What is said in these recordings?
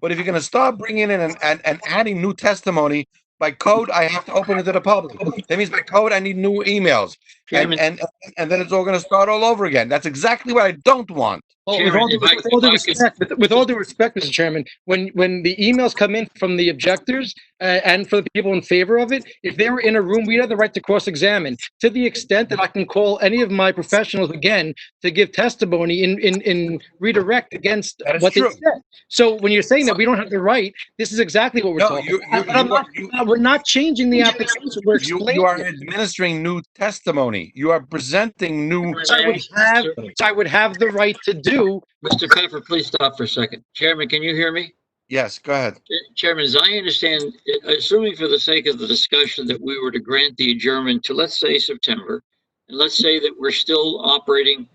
But if you're going to start bringing in and, and, and adding new testimony by code, I have to open it to the public. That means by code, I need new emails. And, Chairman, and, and then it's all going to start all over again. That's exactly what I don't want. well, with Chairman, all due- if I- with all due if I could- respect, with- with all due respect, Mr. Chairman, when, when the emails come in from the objectors uh, and for the people in favor of it, if they were in a room, we have the right to cross-examine. To the extent that I can call any of my professionals again to give testimony in, in, in redirect against That is what they true. said. So when you're saying that we don't have the right, this is exactly what we're No, talking you, about. you, But I'm you, not- you, We're not changing the application, we're you- you are explaining it. administering new testimony. You are presenting new. So I would have, so I would have the right to do Mr. Pfeffer, please stop for a second. Chairman, can you hear me? Yes, go ahead. Ch- Chairman, as I understand, i- assuming for the sake of the discussion that we were to grant the adjournment to, let's say, September, and let's say that we're still operating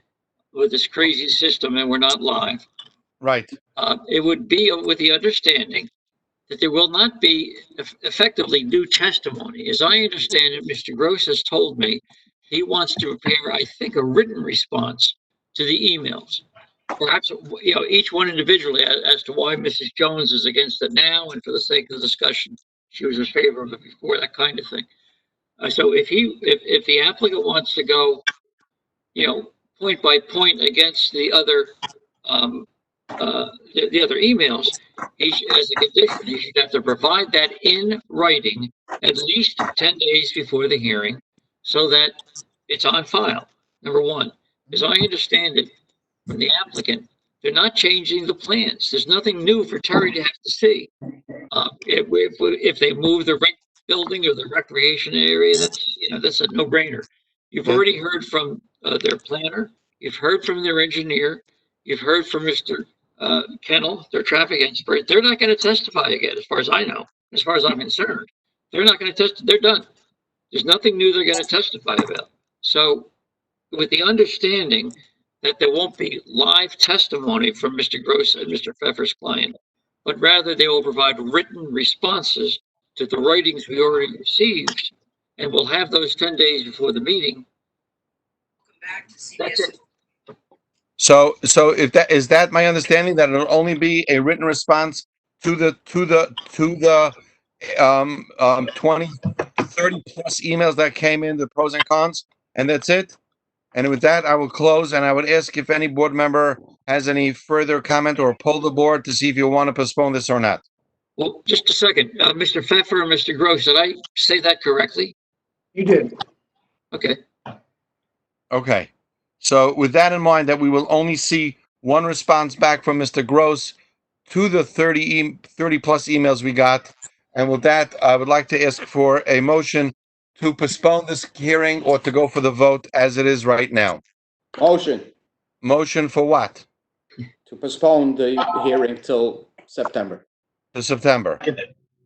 with this crazy system and we're not live, Right. uh, it would be with the understanding that there will not be eff- effectively new testimony. As I understand it, Mr. Gross has told me he wants to prepare, I think, a written response to the emails. Perhaps, you know, each one individually as, as to why Mrs. Jones is against it now and for the sake of the discussion, she was in favor of it before, that kind of thing. Uh, so if he, if, if the applicant wants to go, you know, point by point against the other, um, uh, the, the other emails, he should, as a condition, he should have to provide that in writing at least ten days before the hearing, so that it's on file, number one. As I understand it, from the applicant, they're not changing the plans. There's nothing new for Terry to have to see. Uh, if, we- if, we- if they move the rec building or the recreation area, that's, you know, that's a no-brainer. You've Yeah. already heard from, uh, their planner, you've heard from their engineer, you've heard from Mr uh, Kennel, their traffic expert, they're not going to testify again, as far as I know, as far as I'm concerned. They're not going to test, they're done. There's nothing new they're going to testify about. So with the understanding that there won't be live testimony from Mr. Gross and Mr. Pfeffer's client, but rather they will provide written responses to the writings we already received, and we'll have those 10 days before the meeting. That's it. So, so if that, is that my understanding that it'll only be a written response to the, to the, to the, um, um, 20, 30 plus emails that came in, the pros and cons, and that's it? And with that, I will close and I would ask if any board member has any further comment or pull the board to see if you want to postpone this or not. Well, just a second, uh, Mr. Pfeffer and Mr. Gross, did I say that correctly? You did. Okay, Okay. So with that in mind, that we will only see one response back from Mr. Gross to the 30, e- 30 plus emails we got. And with that, I would like to ask for a motion to postpone this hearing or to go for the vote as it is right now. Motion Motion for what? to postpone the hearing till September. To September.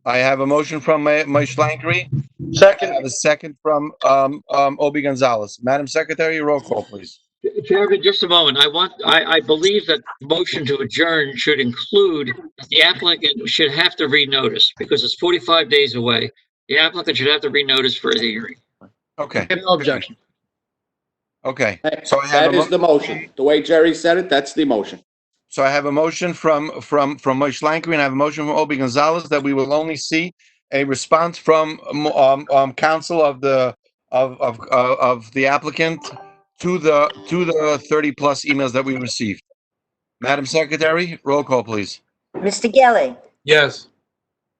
I have a motion from Ma- Moshe Langley. I Second, have a second from um, um, Obi Gonzalez. Madam Secretary, roll call, please. Chairman, just a moment. I want, I, I believe that the motion to adjourn should include that the applicant should have to renotice because it's 45 days away. The applicant should have to renotice for the hearing. Okay, no objection. okay. So I have That a mo- is the motion. The way Jerry said it, that's the motion. So I have a motion from, from, from Moshe Langley, and I have a motion from Obi Gonzalez that we will only see a response from, um, um, um, counsel of the, of, of, uh, of the applicant to the, to the 30-plus emails that we received. Madam Secretary, roll call, please. Mr. Gelli, yes.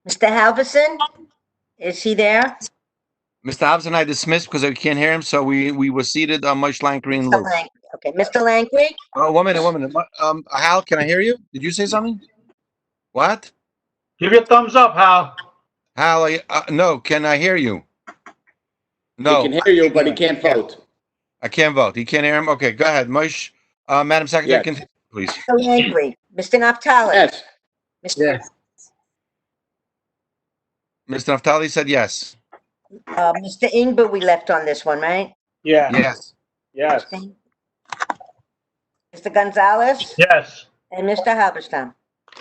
Mr. Halverson, is he there? Mr. Hobson, I dismissed because I can't hear him, so we, we were seated on Moshe Langley and Mr. Lou. Lang- Okay, Mr. Langley, Oh, one minute, one minute. Um, Hal, can I hear you? Did you say something? What? Give your thumbs up, Hal. Hal, I- uh, no, can I hear you? He No. can hear you, but he can't vote. I can't vote. He can't hear him. Okay, go ahead, Mosh. Uh, Madam Secretary, Yes. continue, please. Mr. Langley, Mr. Naftali, Yes, Mr. Mr. Naftali said yes. uh, Mr. Ingber, we left on this one, right? Yeah, Yes. yes. Mr. Gonzalez Yes. and Mr. Halberstam.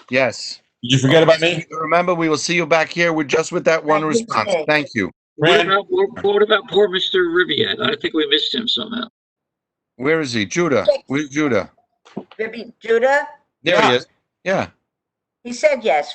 Yes. Did you forget about me? Remember, we will see you back here with just with that one Thank you, response. Jay. Thank you. What Ran- about, what about poor Mr. Ribbiat? I think we missed him somehow. Where is he? Judah. Where's Judah? Ribby Judah, There he is. Yeah. he said yes,